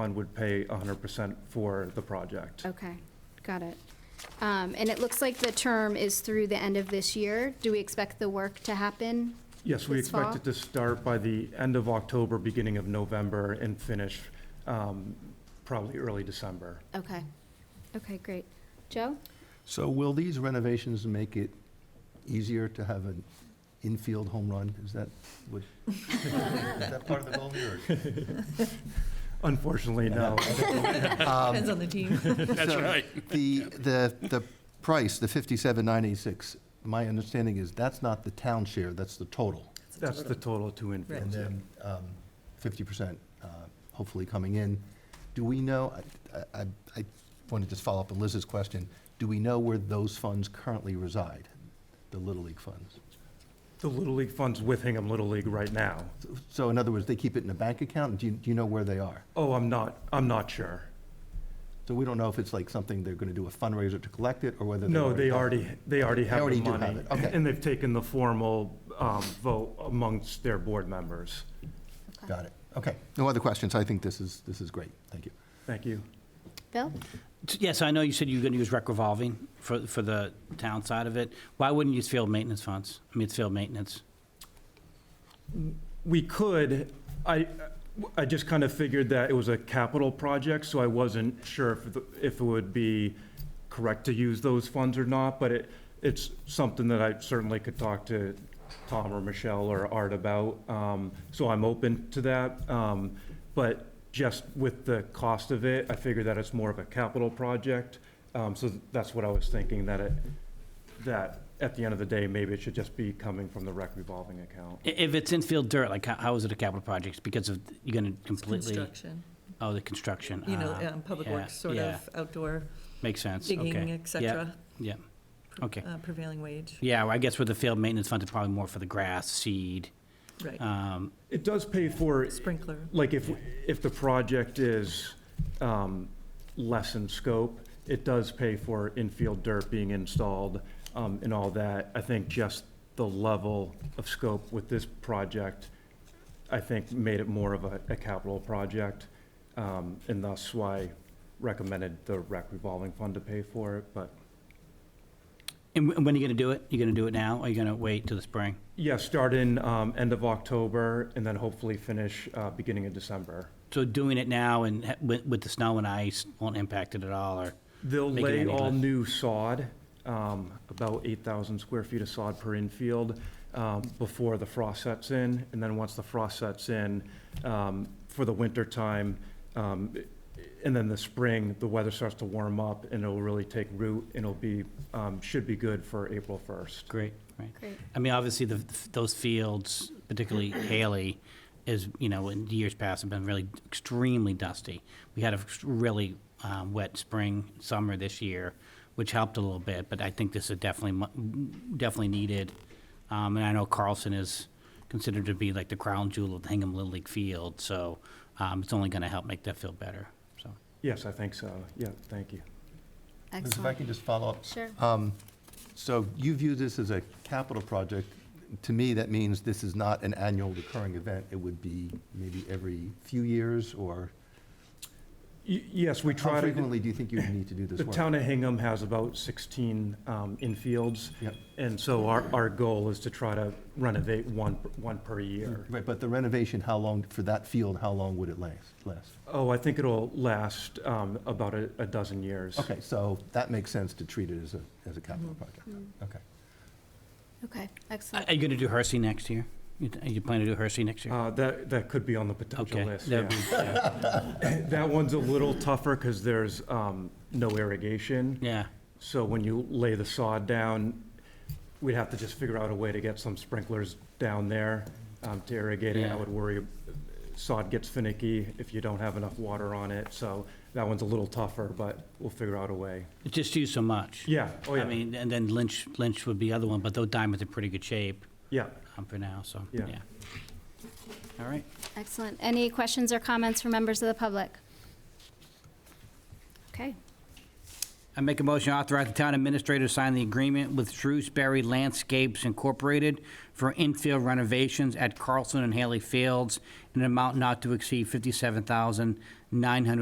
One would pay 100% for the project. Okay, got it. Um, And it looks like the term is through the end of this year. Do we expect the work to happen? Yes, we This expect fall? it to start by the end of October, beginning of November, and finish um, probably early December. Okay, okay, great. Joe? So will these renovations make it easier to have an infield home run? Is that what? Is that part of the goal here? Unfortunately, no. Depends Um, on the team. That's right. The, the, the price, the fifty-seven nine eighty-six, my understanding is that's not the town share, that's the total. That's the total to Right. And infields. then um, fifty percent uh, hopefully coming in. Do we know, I- I, I want to just follow up on Liz's question. Do we know where those funds currently reside, the Little League funds? The Little League funds with Hingham Little League right now. So in other words, they keep it in a bank account? Do you, do you know where they are? Oh, I'm not, I'm not sure. So we don't know if it's like something they're going to do a fundraiser to collect it or whether. No, they already, they already have the already money. do have it, okay. And they've taken the formal um, vote amongst their board members. Okay. Got it. Okay. No other questions. I think this is, this is great. Thank you. Thank you. Bill? Yes, I know you said you were going to use rec revolving for, for the town side of it. Why wouldn't you use field maintenance funds? I mean, it's field maintenance. We could, I, I just kind of figured that it was a capital project, so I wasn't sure if, the- if it would be correct to use those funds or not, but it, it's something that I certainly could talk to Tom or Michelle or Art about, um, so I'm open to that. Um, but just with the cost of it, I figured that it's more of a capital project, um, so that's what I was thinking, that it, that at the end of the day, maybe it should just be coming from the rec revolving account. I- If it's infield dirt, like, how- how is it a capital project? It's Because of, you're going to completely, Construction, oh, the construction. you know, Ah, um, public yeah, works, sort yeah. of, outdoor Makes sense, okay. digging, et cetera, Yeah, yeah. okay. uh, prevailing wage, Yeah, well, I guess with the field maintenance funds, it's probably more for the grass, seed. right, um, It does pay for, Uh, sprinkler. like, if, if the project is um, less in scope, it does pay for infield dirt being installed um, and all that. I think just the level of scope with this project, I think, made it more of a, a capital project. um, And thus why recommended the rec revolving fund to pay for it. But, And wh- when are you going to do it? You going to do it now, or you going to wait till the spring? yeah, start in um, end of October and then hopefully finish uh, beginning of December. So doing it now and ha- with, with the snow and ice won't impact it at all, or? They'll Make it lay any all less. new sod, um, about 8,000 square feet of sod per infield um, before the frost sets in. And then once the frost sets in, um, for the winter time, um, and then the spring, the weather starts to warm up and it'll really take root and it'll be, um, should be good for April 1st. Great, right. Great. I mean, obviously, the, those fields, particularly Haley, is, you know, in years past have been really extremely dusty. We had a really um, wet spring, summer this year, which helped a little bit, but I think this is definitely, mu- definitely needed. Um, And I know Carlson is considered to be like the crown jewel of the Hingham Little League field, so um, it's only going to help make that field better, so. Yes, I think so. Yeah, thank you. Liz, if I Excellent. can just follow up. Sure. Um, So you view this as a capital project. To me, that means this is not an annual recurring event. It would be maybe every few years or Y- Yes, we how try to. frequently do you think you would need to do this The work? town of Hingham has about 16 um, infields. Yep. And so our, our goal is to try to renovate one, one per year. Right, but the renovation, how long, for that field, how long would it last? Last? Oh, I think it'll last um, about a a dozen years. Okay, so that makes sense to treat it as a, as a capital project. Okay. Okay, Are excellent. you going to do Hersey next year? You th- you plan to do Hersey next year? Uh, That, that could be on the potential Okay, list, that'd yeah. be- yeah. That one's a little tougher because there's um, no irrigation. Yeah. So when you lay the sod down, we'd have to just figure out a way to get some sprinklers down there um, to irrigate it. I Yeah. would worry, sod gets finicky if you don't have enough water on it, so that one's a little tougher, but we'll figure out a way. It's just used so much. Yeah, oh I yeah, mean, and then Lynch, Lynch would be the other one, but those diamonds are pretty good shape yeah. um, for now, so, Yeah. yeah. All right. Excellent. Any questions or comments from members of the public? Okay, Uh, I make a motion to authorize the town administrator to sign the agreement with Shrewsbury Landscapes Incorporated for infield renovations at Carlson and Haley Fields in an amount not to exceed fifty-seven thousand nine hundred